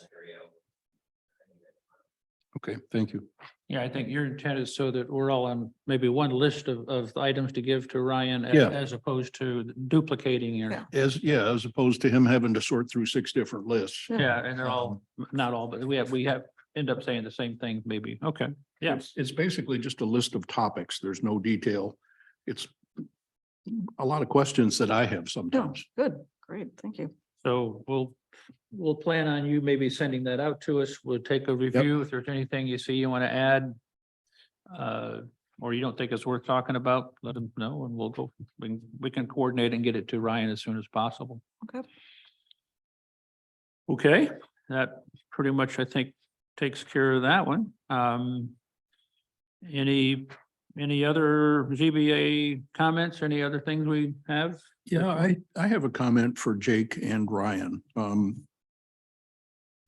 scenario. Okay, thank you. Yeah, I think your intent is so that we're all on maybe one list of, of items to give to Ryan Yeah. as, as opposed to duplicating your, Yeah. As, yeah, as opposed to him having to sort through six different lists. yeah, and they're all, not all, but we have, we have, end up saying the same thing maybe. Okay, yeah. It's- It's basically just a list of topics. There's no detail. It's a lot of questions that I have No, sometimes. good, great, thank you. So we'll, we'll plan on you maybe sending that out to us. We'll take a review. If there's anything you see you want to add. Uh, or you don't think it's worth talking about, let them know and we'll go, we, can- we can coordinate and get it to Ryan as soon as possible. Okay. Okay, that pretty much, I think, takes care of that one. Um. Any, any other ZBA comments? Any other things we have? Yeah, I, I have a comment for Jake and Ryan. Um,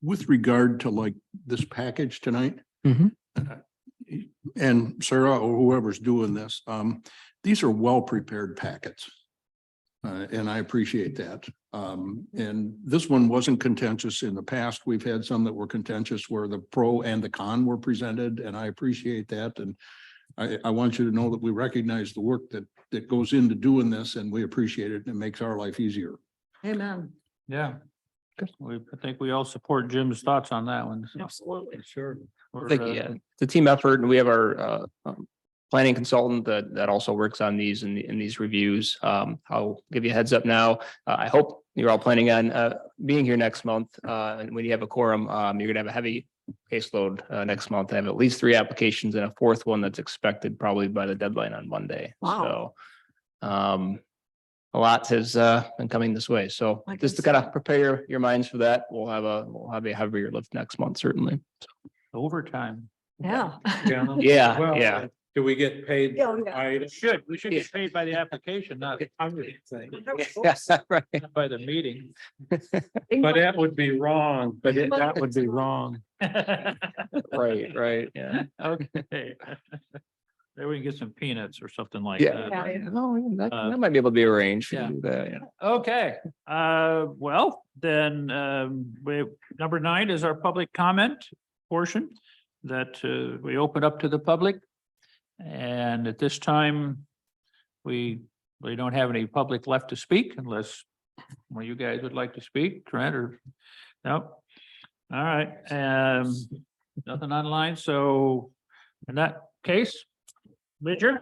with regard to like this package tonight. uh, Mhm. And Sarah or whoever's doing this, um, these are well-prepared packets. Uh, and I appreciate that. Um, and this one wasn't contentious in the past. We've had some that were contentious where the pro and the con were presented, and I appreciate that. And I, I want you to know that we recognize the work that, that goes into doing this and we appreciate it and it makes our life easier. Amen. Yeah. We, I think we all support Jim's thoughts on that one. so. Absolutely. Sure. We're, Thank you. uh, Yeah, it's a team effort and we have our uh, um, planning consultant that, that also works on these and, and these reviews. Um, I'll give you a heads up now. Uh, I hope you're all planning on uh, being here next month. Uh, and when you have a quorum, um, you're gonna have a heavy caseload uh, next month. I have at least three applications and a fourth one that's expected probably by the deadline on Monday. Wow. So um, a lot has uh, been coming this way. So I just to guess- kind of prepare your minds for that, we'll have a, we'll have a heavier lift next month, certainly. Overtime. Yeah. Gentlemen. Yeah, Well, yeah. uh, Do we get paid? Yeah, yeah. I, We Should, we should get paid by the application, not I'm just saying, Yes, right. not by the meeting. but that would be wrong, but it- that would be wrong. Right, right, yeah. Okay. There we can get some peanuts or something like uh, Yeah. that. No, that, Uh, that might be able to be arranged. We yeah. can do that, yeah. Okay, uh, well, then, um, we, number nine is our public comment portion that, uh, we open up to the public. And at this time, we, we don't have any public left to speak unless one of you guys would like to speak, Trent or, no? All right, um, nothing online, so in that case, Major?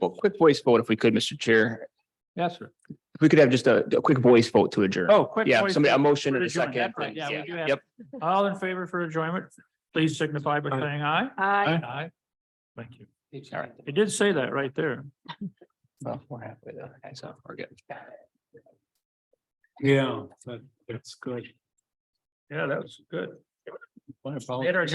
Well, quick voice vote if we could, Mr. Chair. Yes, sir. If we could have just a, a quick voice vote to adjourn. Oh, quick. Yeah, voice somebody, a vote motion for and a adjourn. second. That's right. please. Yeah, we do have- Yep, All in favor for adjournment, please signify by saying aye. Hi. Aye. Thank you. all right. It did say that right there. Well, We're halfway there. Okay, so we're good. Yeah, that- that's good. Yeah, that was good. My apologies. Later.